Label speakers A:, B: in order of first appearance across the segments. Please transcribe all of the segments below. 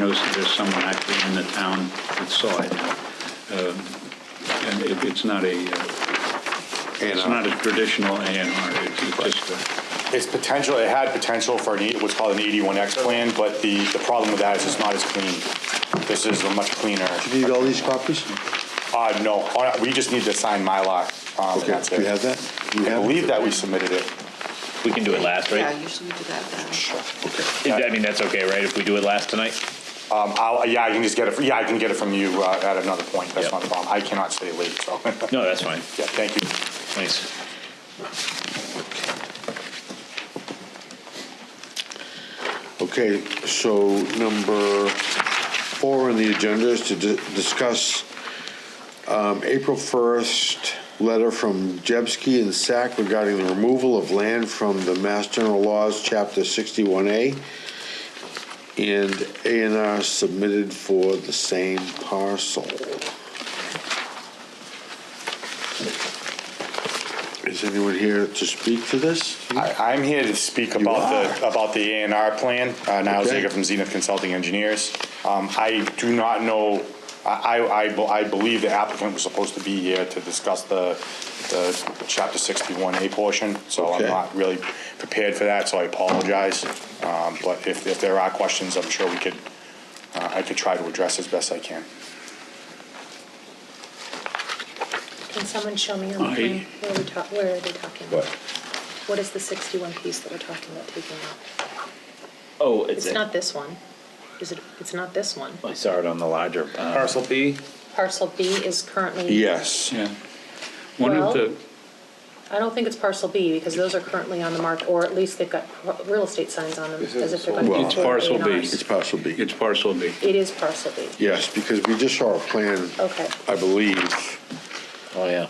A: noticed that there's someone actually in the town that saw it now. Um, And it- it's not a, uh, it's
B: uh,
A: not a traditional A and R, it's it's just a...
B: It's potential, it had potential for an, eight- what's called an 81X plan, but the, the problem with that is it's not as clean. This is a much cleaner.
C: Need all these copies?
B: Uh, no, uh, we just need to sign Mylar. um, and
C: Okay,
B: that's
C: do you
B: it.
C: have that? You
B: I
C: have it?
B: believe that we submitted it.
D: We can do it last,
E: Yeah,
D: right?
E: usually we do that then.
D: I mean, that's okay, right, if we do it last tonight?
B: Um, I'll, yeah, I can just get it, yeah, I can get it from you uh, at another point. That's
D: Yep.
B: not a problem. I cannot stay late, so. Yeah,
D: No, that's fine.
B: thank you.
D: Thanks.
C: Okay, so number four on the agenda is to di- discuss um, April 1st letter from Jebsky and SAC regarding the removal of land from the Mass General Laws, Chapter 61A, and A and R submitted for the same parcel. Is anyone here to speak to this?
B: I, I'm here to speak about the, about the A and R plan, uh, Niall
C: Okay.
B: Zager from Zenith Consulting Engineers. Um, I do not know, I, I- I, be- I believe the applicant was supposed to be here to discuss the, the chapter sixty-one A portion, so I'm
C: Okay.
B: not really prepared for that, so I apologize. Um, but if, if there are questions, I'm sure we could, uh, I could try to address as best I can.
F: Can someone show me on
A: I-
F: the plan where we talk, where are they talking?
G: What?
F: What is the sixty-one piece that we're talking about taking out?
D: Oh, it's,
F: It's not this one. Is it, it's not this one.
D: I saw it on the larger. uh,
G: Parcel B?
F: Parcel B is currently.
C: Yes.
A: yeah. One of
F: Well-
A: the,
F: I don't think it's parcel B because those are currently on the mark, or at least they've got pro- real estate signs on them
G: This
F: as if
G: is
F: they're going to
C: Well,
F: be.
C: It's
A: parcel B.
C: It's parcel B.
A: it's parcel B.
F: It is parcel B.
C: Yes, because we just saw a plan,
F: Okay.
C: I believe,
D: Oh, yeah.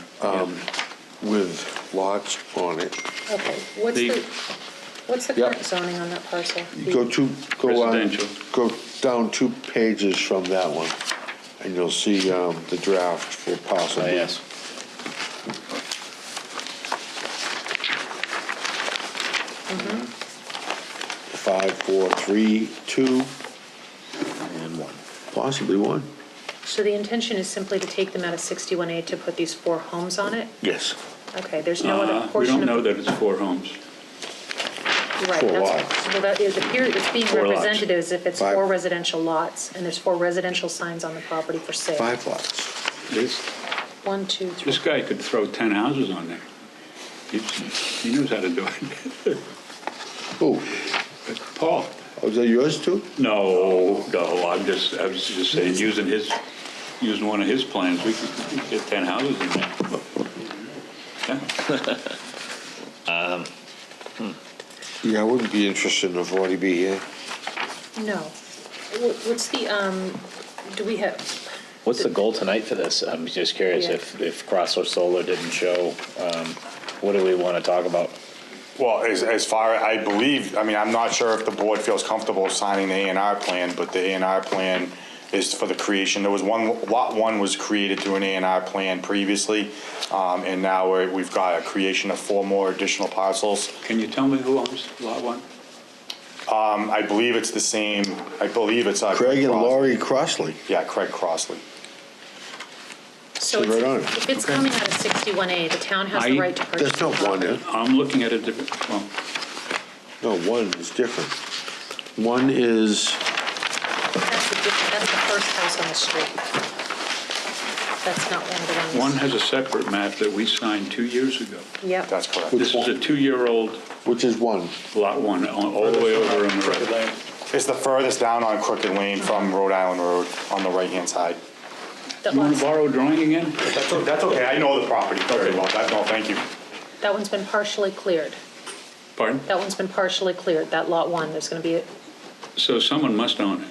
C: with lots on it.
F: Okay, what's
A: The-
F: the, what's the
C: Yep.
F: current zoning on that parcel?
C: Go to, go on,
A: Residential.
C: go down two pages from that one, and you'll see um, the draft for parcel
D: Oh,
C: B.
D: yes.
C: Five, four, three, two,
D: And one.
C: possibly one.
F: So the intention is simply to take them out of sixty-one A to put these four homes on it?
C: Yes.
F: Okay, there's no
A: Uh,
F: other
A: We
F: portion of.
A: don't know that it's four homes.
F: Right,
C: Four
F: that's,
C: lots.
F: well, that, it appears, it's being
D: Four lots.
F: represented as if it's
C: Five.
F: four residential lots, and there's four residential signs on the property for sale.
C: Five lots.
A: This
F: One, two, three.
A: this guy could throw 10 houses on there. He's- He knows how to do it.
C: Oh,
A: Paul?
C: is that yours too?
A: No, no, I'm just, I was just saying, using his, using one of his plans, we could get 10 houses in there. Yeah.
C: Yeah, I wouldn't be interested in a 40B here.
F: No. Wh- What's the, um, do we have,
D: What's the goal tonight for this? I'm just curious
F: Yeah.
D: if, if Crossover Solar didn't show, um, what do we want to talk about?
B: Well, as, as far, I believe, I mean, I'm not sure if the board feels comfortable signing the A and R plan, but the A and R plan is for the creation, there was one, lot one was created through an A and R plan previously, um, and now we're, we've got a creation of four more additional parcels.
A: Can you tell me who owns Lot 1?
B: Um, I believe it's the same, I believe it's. uh,
C: Craig and
B: Crossley.
C: Laurie Crossley.
B: Yeah, Craig Crossley.
F: so
C: Right on.
F: it's- if it's coming out of sixty-one A, the town has the
A: I-
F: right to purchase.
C: That's not
F: the
C: one,
F: property.
C: eh?
A: I'm looking at a different, well,
C: No, one is different. One is,
F: That's the, diff- that's the first house on the street. That's not one of the
A: one
F: ones.
A: has a separate map that we signed two years ago.
F: Yep,
B: That's correct.
A: This is a two-year-old
C: which is one.
A: Lot 1, all all the way over on the right.
B: It's the furthest down on Crooked Lane from Rhode Island Road on the right-hand side.
F: that
A: You want to
F: one's,
A: borrow a drawing again?
B: That's, o- that's okay, I know the property very well, That- no, thank you.
F: that one's been partially cleared.
A: Pardon?
F: That one's been partially cleared, that lot one, there's gonna be, a-
A: So someone must own it,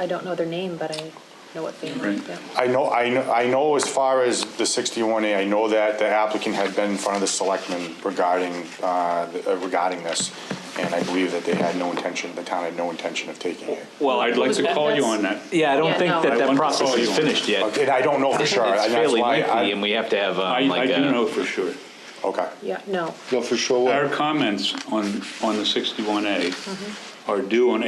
F: I don't know their name, but I know what they
A: Right.
F: mean, yeah.
B: I know, I know, I know as far as the 61A, I know that the applicant had been in front of the selectmen regarding, uh, the- uh, regarding this, and I believe that they had no intention, the town had no intention of taking it.
A: Well, I'd like to call you on that. Oh
D: Yeah, I
F: don't Yeah, think no. that that
A: I want to process call is you on it. finished
D: Oh, yet.
B: And I don't know for
D: It's
B: sure. and that's
D: fairly
B: why I-
D: lengthy, and we have to have, um,
A: I, I
D: like a.
A: do know for sure.
B: Okay,
F: Yeah, no.
C: No, for sure.
A: Mm-hmm. Our comments on, on the 61A are due on